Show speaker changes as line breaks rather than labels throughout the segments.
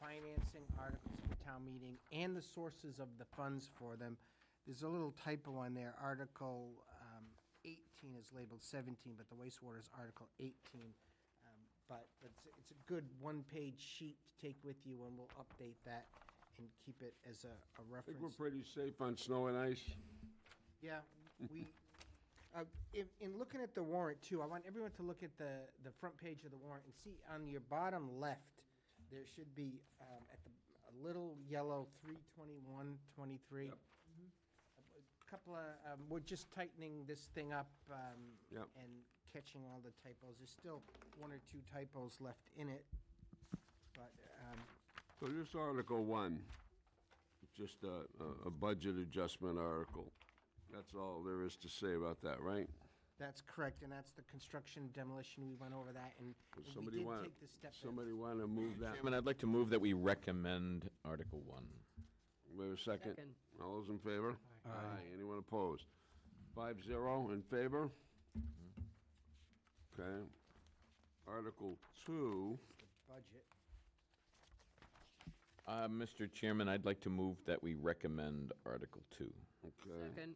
financing articles for town meeting and the sources of the funds for them. There's a little typo on there. Article um, 18 is labeled 17, but the wastewater is Article 18. Um, But it's, it's a good one-page sheet to take with you, and we'll update that and keep it as a a
I think we're
reference.
pretty safe on snow and ice.
Yeah, we, uh, in, in looking at the warrant too, I want everyone to look at the, the front page of the warrant and see on your bottom left, there should be, um, at the, a little yellow three twenty-one, twenty-three. A Couple of, um, we're just tightening this thing up, um,
Yep.
and catching all the typos. There's still one or two typos left in it. But, um,
So this Article One, just a, a- a budget adjustment article. That's all there is to say about that, right?
that's correct, and that's the construction demolition. We went over that and and
Does
we
Somebody
did
want,
take the step. that-
somebody want to move that?
Chairman, I'd like to move that we recommend Article 1.
We have a second?
Second.
All those in favor? Aye. Anyone opposed? Five zero in favor? Okay. Article Two,
budget.
Uh, Mr. Chairman, I'd like to move that we recommend Article 2.
okay.
Second.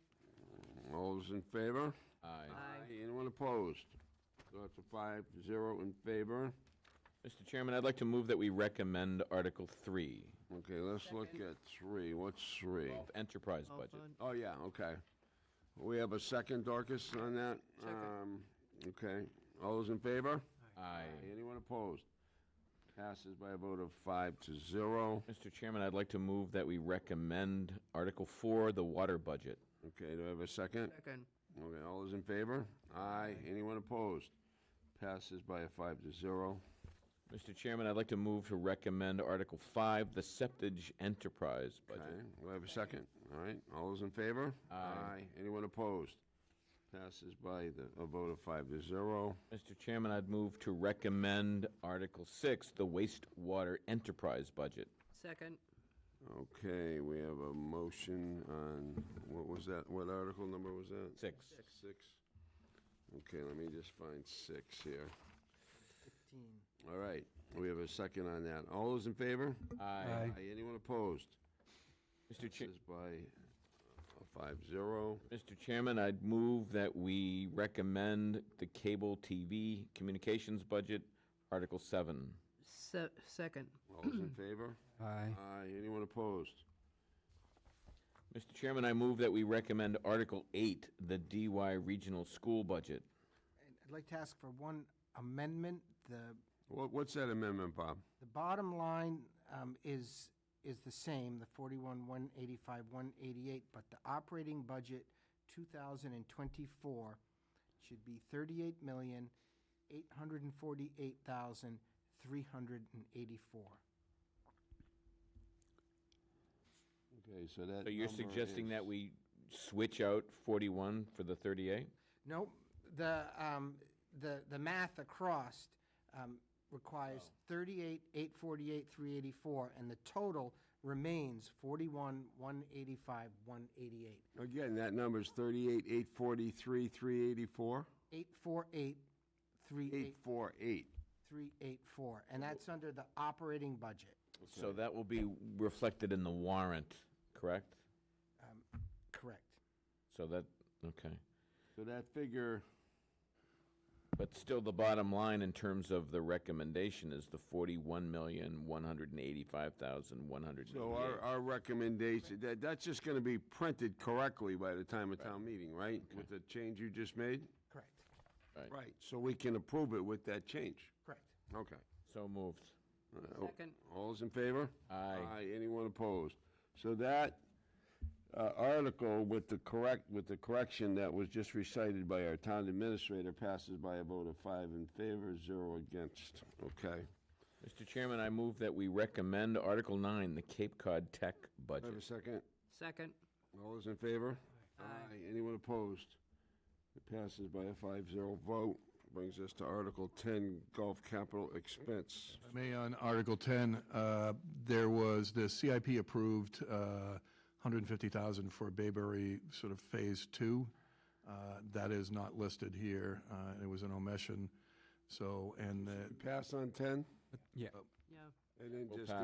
All those in favor?
Aye.
Aye.
Anyone opposed? So that's a five zero in favor.
Mr. Chairman, I'd like to move that we recommend Article 3,
Okay, let's look
Second.
at three. What's three?
of enterprise budget.
Oh, yeah, okay. We have a second, Dorcas, on that? Um, Okay. All those in favor?
Aye.
Anyone opposed? Passes by a vote of five to zero.
Mr. Chairman, I'd like to move that we recommend Article 4, the water budget.
Okay, do I have a second?
Second.
Okay, all those in favor? Aye. Anyone opposed? Passes by a five to zero.
Mr. Chairman, I'd like to move to recommend Article 5, the septage enterprise budget.
Okay, do I have a second? All right, all those in favor? Aye. Anyone opposed? Passes by the, a vote of five to zero.
Mr. Chairman, I'd move to recommend Article 6, the wastewater enterprise budget.
Second.
Okay, we have a motion on, what was that, what article number was that?
Six.
Six. Okay, let me just find six here.
15.
All right, we have a second on that. All those in favor?
Aye.
Aye. Anyone opposed?
Mr. Chair.
Passes by a five zero.
Mr. Chairman, I'd move that we recommend the cable TV communications budget, Article 7.
Se- second.
All those in favor?
Aye.
Aye. Anyone opposed?
Mr. Chairman, I move that we recommend Article 8, the DY regional school budget.
And I'd like to ask for one amendment. The,
What, what's that amendment, Bob?
the bottom line um, is, is the same, the 41, 185, 188, but the operating budget 2024 should be 38,848,384.
Okay, so that.
So you're
number
suggesting
is-
that we switch out 41 for the 38?
No, the, um, the, the math across, um, requires thirty-eight, eight forty-eight, three eighty-four, and the total remains forty-one, one eighty-five, one eighty-eight.
Again, that number's thirty-eight, eight forty-three, three eighty-four?
Eight four eight, three
Eight
eight,
four eight.
three eight four, and that's under the operating budget.
So that will be reflected in the warrant, correct?
Um, Correct.
So that, okay.
So that figure,
But still, the bottom line in terms of the recommendation is the 41,185,188.
so our, our recommendation, that, that's just gonna be printed correctly by the time of town meeting, right? With the change you just made?
Correct.
Right.
Right. So we can approve it with that change.
Correct.
Okay.
So moved.
Second.
All's in favor?
Aye.
Aye, anyone opposed? So that uh, article with the correct, with the correction that was just recited by our town administrator passes by a vote of five in favor, zero against. Okay.
Mr. Chairman, I move that we recommend Article 9, the Cape Cod Tech
Do I have a
budget.
second?
Second.
All those in favor? Aye. Anyone opposed? It passes by a 5-0 vote. Brings us to Article 10, Golf Capital Expense.
May on Article 10, uh, there was the CIP approved uh, 150,000 for Bayberry sort of Phase 2. Uh, That is not listed here. Uh, It was an omission, so, and the
Pass on 10,
Yeah.
Yeah.
and then
We'll
just
pass.